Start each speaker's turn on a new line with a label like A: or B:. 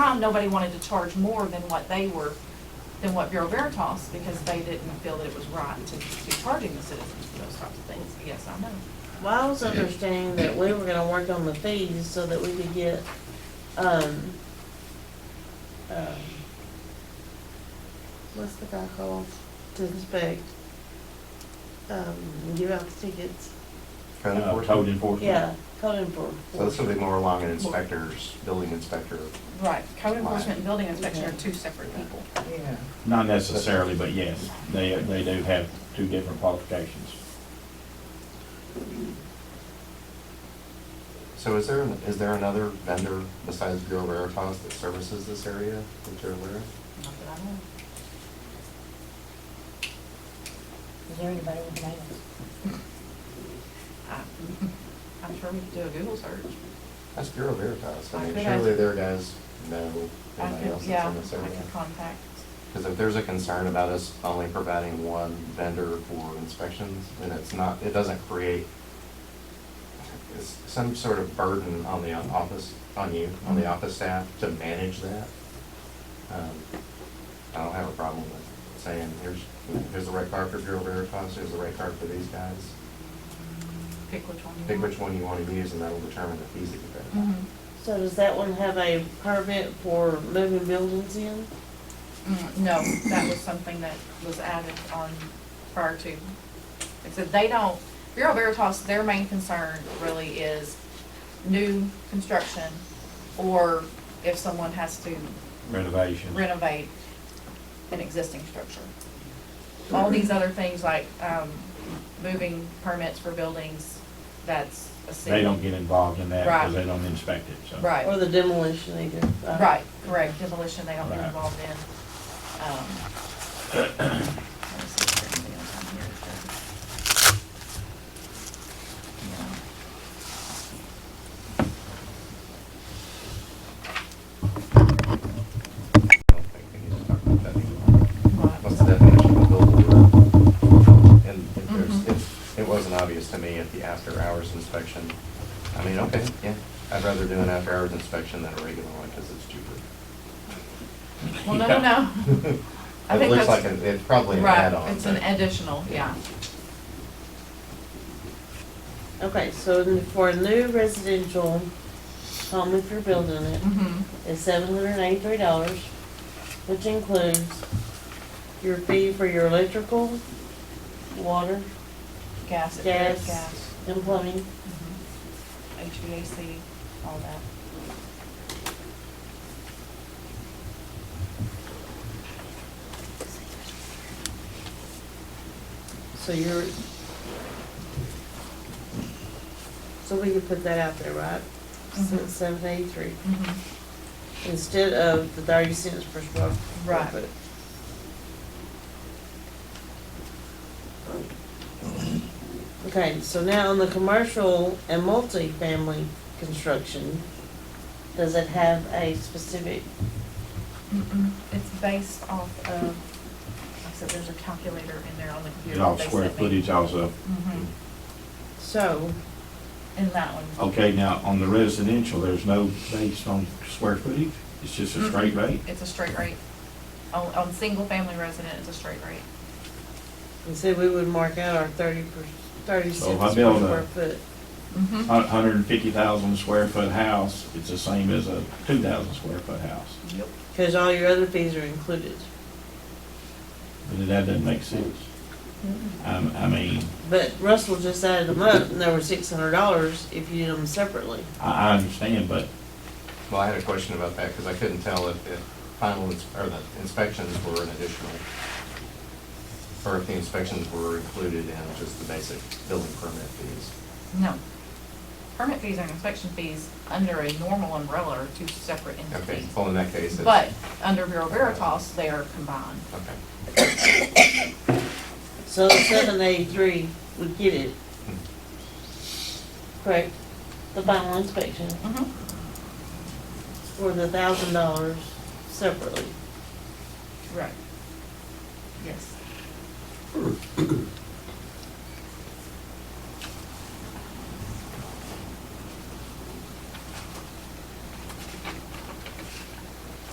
A: time, nobody wanted to charge more than what they were, than what Bureau Veritas, because they didn't feel that it was right to be charging the citizens for those types of things. Yes, I know.
B: Well, I was understanding that we were gonna work on the fees so that we could get, um, um, what's the guy called to inspect? Um, give out the tickets,
C: Code
D: Uh,
C: enforcement.
D: Code enforcement.
B: yeah, code
C: So this would
B: enforcement.
C: be more along an inspector's, building inspector.
A: Right, code enforcement and building inspection are two separate people.
C: Yeah.
D: Not necessarily, but yes, they, they do have two different qualifications.
C: So is there, is there another vendor besides Bureau Veritas that services this area that you're aware of?
A: Not that I know.
E: Is there anybody with names?
A: I- I'm sure we could do a Google search.
C: That's Bureau Veritas.
A: I
C: I mean,
A: could ask-
C: surely their guys know
A: I
C: anybody else
A: could,
C: that's
A: yeah,
C: in this
A: I
C: area.
A: could contact.
C: Because if there's a concern about us only providing one vendor for inspections, then it's not, it doesn't create it's some sort of burden on the office, on you, on the office staff to manage that. Um, I don't have a problem with saying, here's, here's the right card for Bureau Veritas, here's the right card for these guys.
A: Pick which one you want.
C: Pick which one you want to use and that'll determine the fees that you pay.
A: Mhm.
B: So does that one have a permit for moving buildings in?
A: Mm, No, that was something that was added on prior to. It said they don't, Bureau Veritas, their main concern really is new construction or if someone has to
D: Renovation.
A: renovate an existing structure. All
D: Mm-hmm.
A: these other things like, um, moving permits for buildings, that's a city.
D: They don't get involved in that because
A: Right.
D: they don't inspect it, so.
A: Right.
B: Or the demolition either? Uh,
C: Uh-huh.
A: Right, correct, demolition, they don't get
D: Right.
A: involved in. Um, let me see if there's anything else on here that-
C: I don't think we need to talk about that anymore.
A: Yeah.
C: What's the definition of billable work? And if there's,
A: Mhm.
C: if, it wasn't obvious to me at the after-hours inspection. I mean, okay, yeah, I'd rather do an after-hours inspection than a regular one, because it's cheaper.
A: Well, no, no, no, I
C: It
A: think
C: looks like,
A: that's-
C: a- it's probably an add-on.
A: right, it's an
C: but-
A: additional, yeah.
B: Okay, so for a new residential home, if you're building it,
A: Mm-hmm,
B: is seven hundred and eighty-three dollars, which includes your fee for your electrical, water,
A: gas, it is
B: Gas.
A: gas,
B: and plumbing.
A: mhm. HVAC, all that.
B: So you're, so we can put that out there, right?
A: Mhm.
B: Seven eighty-three,
A: Mhm.
B: instead of the thirty cents per square.
A: Right.
B: foot. Okay, so now on the commercial and multifamily construction, does it have a specific,
A: Mm-mm. Mm-hmm. It's based off of, like I said, there's a calculator in there on the
D: It's
A: computer.
D: all
A: they
D: square
A: sent me.
D: footage also.
A: Mhm.
B: so,
A: in that one.
D: Okay, now, on the residential, there's no based on square footage? It's just a straight rate?
A: It's a straight rate. On, on single-family resident, it's a straight rate.
B: and said we would mark out our thirty per, thirty
D: So if
B: cents
D: Oh, I
B: per
D: build a-
B: square foot.
A: Mm-hmm.
D: A hundred and fifty thousand square foot house, it's the same as a two thousand square foot house.
A: Yep.
B: Cause all your other fees are included,
D: But that doesn't make sense. Um, I mean,
B: but Russell just added them up, and they were six hundred dollars if you did them separately.
D: I, I understand, but
C: Well, I had a question about that, because I couldn't tell if, if final, ins- or the inspections were an additional, or if the inspections were included in just the basic building permit fees.
A: No. Permit fees and inspection fees under a normal umbrella are two separate
C: Okay,
A: entities.
C: well, in that case, it's.
A: But under Bureau Veritas, they are combined.
C: Okay.
B: So seven eighty-three would get it. Correct, the final inspection
A: Mm-hmm.
B: for the thousand dollars separately.
A: Right. Yes.